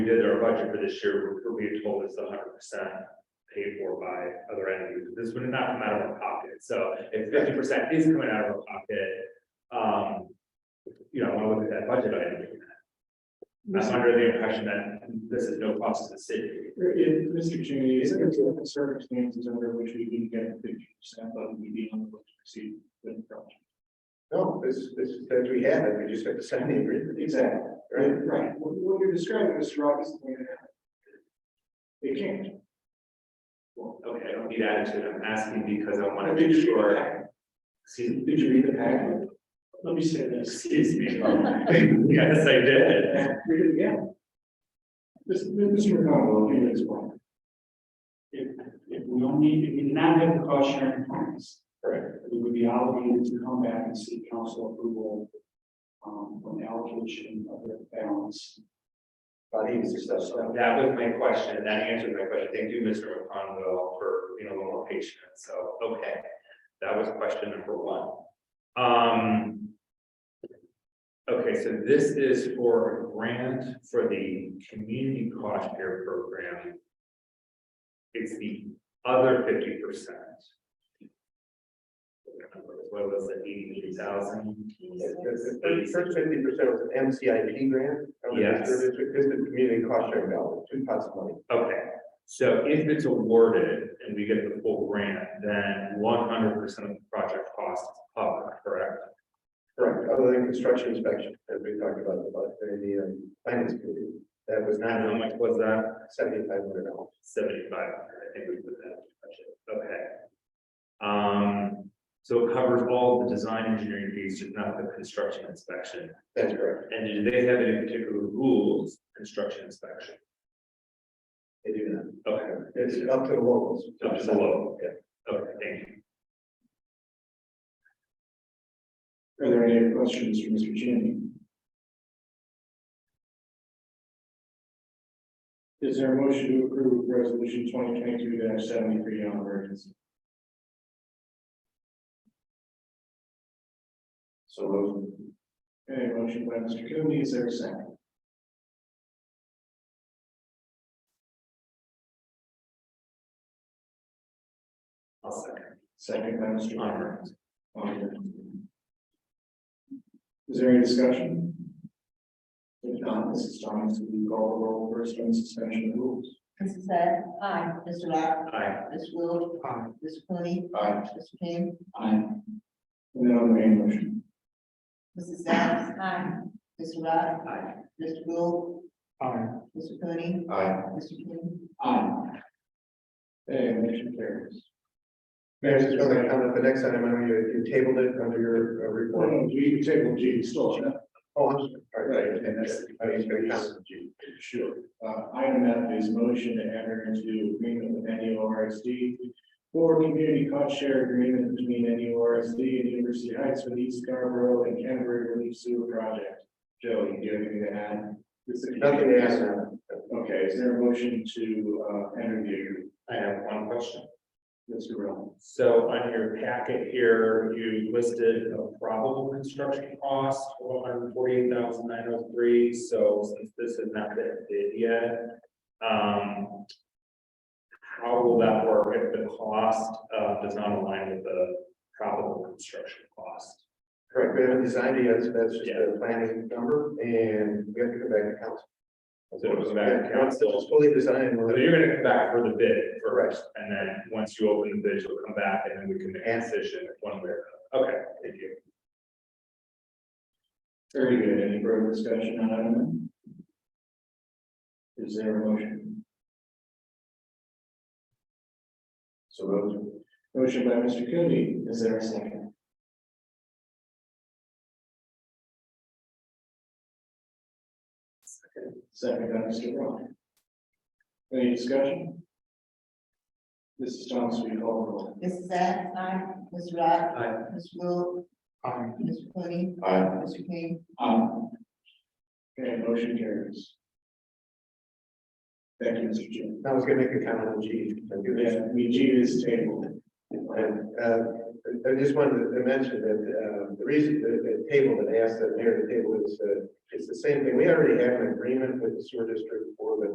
we did our budget for this year, we were being told it's hundred percent paid for by other entities. This would not come out of our pocket. So if fifty percent is coming out of our pocket, um, you know, I want to look at that budget item. again. I'm under the impression that this is no cost to the city. Mr. Cheney, is there certain circumstances under which we can get fifty percent of the median on the books received with the project? No, this, this, as we have it, we just have to sign the agreement. Exactly. Right, Right, what what you're describing, Mr. Rock, is the way it happened. They can't. Well, okay, I don't need attitude. I'm asking because I want to Did make you read the sure. packet? Excuse Did you read the packet? Let me say this. excuse me. Yes, I did. Read it again. This, Mr. McConnell, you as well. If, if we only, if we did not have the cost sharing plans. Correct. We would be obligated to come back and seek council approval. Um, on the allocation of the balance. Body is just So That was my question. That answered my question. Thank you, Mr. McConville, for being a little more patient. So, okay. That was question number one. Um. Okay, so this is for a grant for the community cost share program. It's the other fifty percent. What was it, eighty-three thousand? First fifty percent was an MCIP grant. from the Yes. district, This is the community cost sharing dollars, two pots of money. Okay, so if it's awarded and we get the full grant, then one hundred percent of the project cost is covered, correct? Correct, other than construction inspection, as we talked about, about the um, finance committee, that was And how not much was that? seventy-five hundred dollars. Seventy-five hundred, I think we put that in the budget, okay. Um, so it covers all the design engineering fees, just not the construction inspection. That's correct, And do they have any particular rules, construction inspection? they do that. Okay, It's up to the locals. Up to the local. Yeah. okay, thank you. Are there any other questions for Mr. Cheney? Is there a motion to approve resolution twenty twenty-two seventy-three on emergency? So those. Okay, motion by Mr. Cooney, is there a second? I'll second. Second by Mr. Honor. Conrad. Is there any discussion? If not, Mrs. Thomas, will you call the roll first on suspension of rules? Mrs. Sad, aye. Mr. Rock, Aye. Mr. Will. Aye. Mr. Cooney. Aye. Mr. King, Aye. And then on the main motion. Mrs. Sad, aye. Mr. Rock. Aye. Mr. Will, Aye. Mr. Cooney, Aye. Mr. King. Aye. Okay, motion carries. Mayor, just another comment, the next item, I know you you tabled it under your uh, report. Well, we table G still, yeah? Oh, I'm sorry. All Right, and that's- I was gonna comment, G. Sure. Uh, item F is motion to enter into agreement with N U R S D for community cost share agreement between N U R S D and University Heights for the East Scarborough and Canterbury Relief Sewer Project. Joey, do you have anything to add? Nothing to add on. Okay, is there a motion to, uh, enter the agreement? I have one question. Mr. Rowe? So on your packet here, you listed a probable construction cost of one hundred forty-eight thousand nine hundred three, so since this has not been bid yet, um, how will that work if the cost, uh, does not align with the probable construction cost? Correct, we haven't designed it yet, so that's just Yeah. a planning number, and we have to come back to council. So it'll go back to Yeah, once council. It's fully designed, we'll So have you're gonna come back for the bid Correct. first, and then once you open the bid, you'll come back and then we can make a decision one way or another. Okay, thank you. Very good. Any further discussion on item? F? Is there a motion? So moved. Motion by Mr. Cooney. Is there a second? Second by Mr. Rock. Any discussion? Mrs. Thomas, will you call the roll? Mrs. Sad, aye. Mr. Rock. Aye. Mr. Will, Aye. Mr. Cooney, Aye. Mr. King. Okay, motion carries. Thank you, Mr. Jim. I was gonna make a comment on G. if I do this. Yeah, I mean, G is tabled. And, uh, I- I just wanted to mention that, um, the reason, the, the table that I asked that near the table is, uh, it's the same thing. We already have an agreement with the sewer district for the